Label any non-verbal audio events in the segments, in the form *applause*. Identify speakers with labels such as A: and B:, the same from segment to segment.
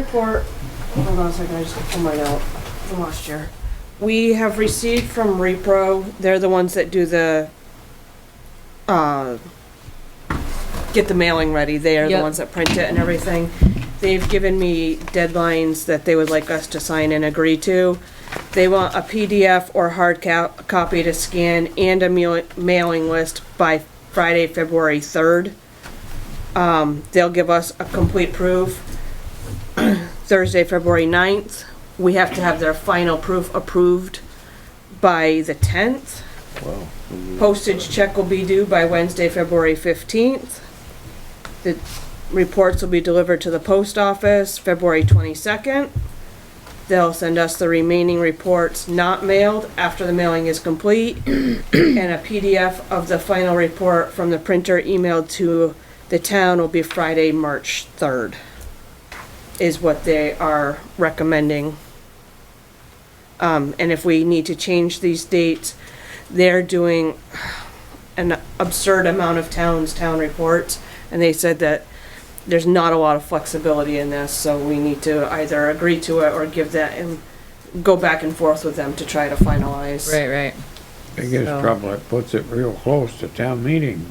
A: Report, hold on a second, I just gotta pull mine out from last year. We have received from Repro, they're the ones that do the, uh, get the mailing ready, they are the
B: Yep.
A: ones that print it and everything. They've given me deadlines that they would like us to sign and agree to. They want a PDF or hard co- copy to scan and a mail- mailing list by Friday, February third. Um, they'll give us a complete proof. Thursday, February 9th. We have to have their final proof approved by the 10th. Postage check will be due by Wednesday, February 15th. The reports will be delivered to the post office February 22nd. They'll send us the remaining reports not mailed after the mailing is complete, *clears throat* and a PDF of the final report from the printer emailed to the town will be Friday, March 3rd is what they are recommending. Um, and if we need to change these dates, they're doing an absurd amount of towns, town reports, and they said that there's not a lot of flexibility in this, so we need to either agree to it or give that and go back and forth with them to try to finalize.
B: Right, right.
C: Biggest
B: So-
C: trouble, it puts it real close to town meeting.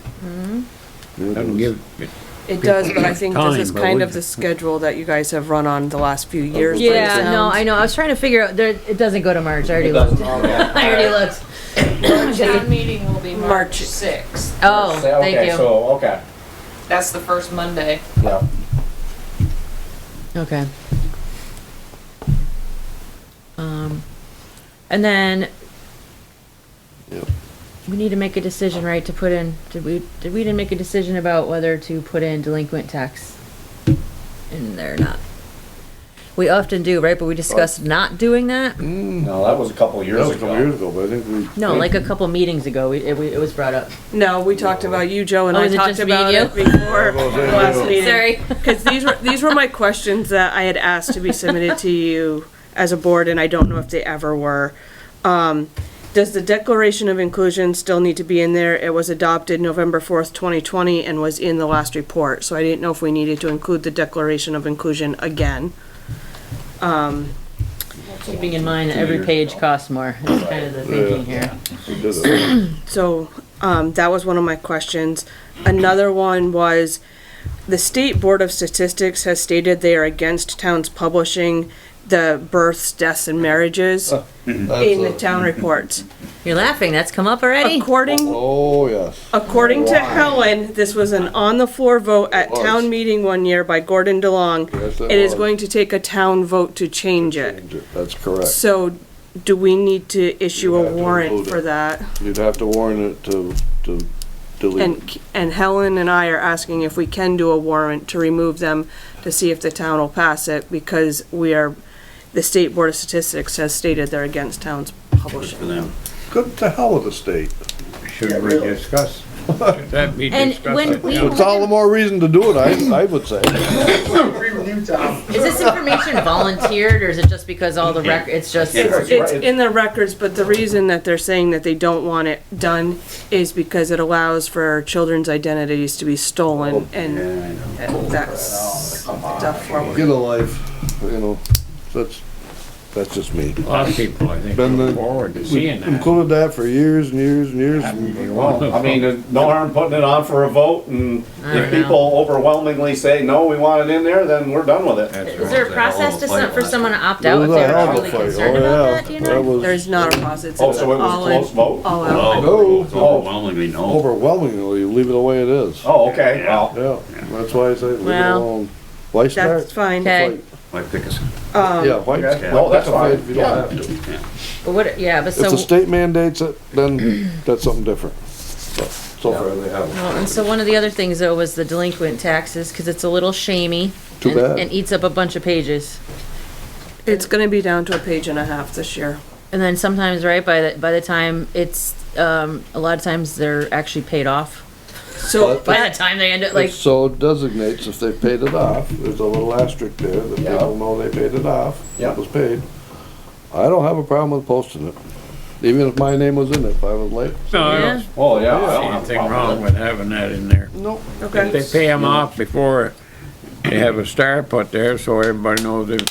C: Doesn't give, it-
A: It does, but I think this is
C: Time, but
A: kind
C: we-
A: of the schedule that you guys have run on the last few years. for the
B: Oh, Yeah, no,
A: towns.
B: I know. I was trying to figure out. There, it doesn't go to March. I already looked. I already looked.
D: Town meeting will be
A: March.
D: March sixth.
B: Oh, thank
E: Okay,
B: you.
E: so, okay,
D: That's the first Monday.
E: yeah.
B: Okay. Um, and then we need to make a decision, right? To put in, did we? Did we didn't make a decision about whether to put in delinquent tax in there or not? We often do, right? But we discussed not doing that.
E: No, that was a couple
F: That
E: years
F: was a couple years
E: ago.
F: ago, but I think we.
B: No, like a couple meetings ago, we, it, we, it was brought up.
A: No, we talked about you, Joe, and
B: Oh,
A: I
B: is it
A: talked
B: just me and
A: about
B: you?
A: it before
F: was gonna
A: the
F: say,
A: last
F: yeah.
A: meeting. *laughs*
B: Sorry.
A: Because these were, these were my questions that I had asked to be submitted to you as a board, and I don't know if they ever were. Um, does the Declaration of Inclusion still need to be in there? It was adopted November fourth, twenty twenty, and was in the last report, so I didn't know if we needed to include the Declaration of Inclusion again.
B: Keeping in mind that every page costs more, that's kind of the thinking here.
F: We did it.
A: So, um, that was one of my questions. Another one was, the State Board of Statistics has stated they are against towns publishing the births, deaths, and marriages
F: Uh,
A: in the town reports.
B: You're laughing, that's come up already?
A: According,
F: Oh, yes.
A: according to Helen, this was an on-the-floor vote at
F: was.
A: town meeting one year by Gordon DeLong.
F: Yes, it
A: It is
F: was.
A: going to take a town vote to change it.
F: That's correct.
A: So, do we need to issue
F: You
A: a
F: have to
A: warrant
F: include
A: for
F: it.
A: that?
F: You'd have to warn it to, to delete.
A: And, and Helen and I are asking if we can do a warrant to remove them to see if the town will pass it because we are, the State Board of Statistics has stated they're against towns publishing. them.
F: Good to hell with the state.
C: should we
E: *laughs*
C: discuss? Should that be
B: And when
C: discussed?
B: we-
F: It's all the more reason to do it, I, I would say.
B: Is this information volunteered, or is it just because all the rec, it's just,
A: It's,
B: okay,
A: it's in the records, but the reason that they're saying that they don't want it done is because it allows for children's identities to be
E: Oh,
A: stolen and and that's stuff for.
F: *laughs* Get a life, you know, that's, that's just me.
C: A lot of people, I think,
F: Been the-
C: look forward to
F: We
C: seeing that.
F: included that for years and years and years.
E: Well, I mean, there's no harm putting it on for a vote, and if people overwhelmingly say, no, we want it in there, then we're done with it.
B: Is there a process to, some- for someone to opt out if
F: It was a
B: they're
F: hell of a
B: really
F: fight.
B: concerned
F: Oh,
B: about
F: yeah.
B: that, do you
F: That
B: know?
F: was
A: There's not a process.
E: Oh, so it was
A: all
E: a
A: in-
E: close vote? Oh.
A: All out.
F: No.
G: No, it's overwhelmingly no.
F: overwhelmingly, you leave it the way it is.
E: Oh, okay, well,
F: Yeah, that's why I say leave it
B: Well,
F: alone. Why start?
A: That's fine.
B: Okay,
G: Like, pick us.
F: Yeah, why? why
E: okay, no, that's
F: pick a fight
E: fine,
F: if you don't
E: yeah.
F: have to?
B: but what, yeah, but
F: If the
B: so,
F: state mandates it, then that's something different. But So far, they haven't.
B: well, and so one of the other things though was the delinquent taxes, cause it's a little shamey.
F: Too
B: and-
F: bad.
B: And eats up a bunch of pages.
A: It's gonna be down to a page and a half this year.
B: And then sometimes, right, by the, by the time it's, um, a lot of times they're actually paid off.
A: So
B: By the time they end up,
F: It
B: like,
F: so designates if they paid it off, there's a little asterisk there that
E: Yeah.
F: people know they paid it off,
E: Yeah.
F: it was paid. I don't have a problem with posting it, even if my name was in it, if I was late.
C: No, I
B: yeah,
C: don't see
E: Oh, yeah. I don't have a
C: anything
E: problem
C: wrong
E: with
C: with having that in there.
F: Nope.
A: Okay.
C: If they pay them off before They have a star put there so everybody knows they've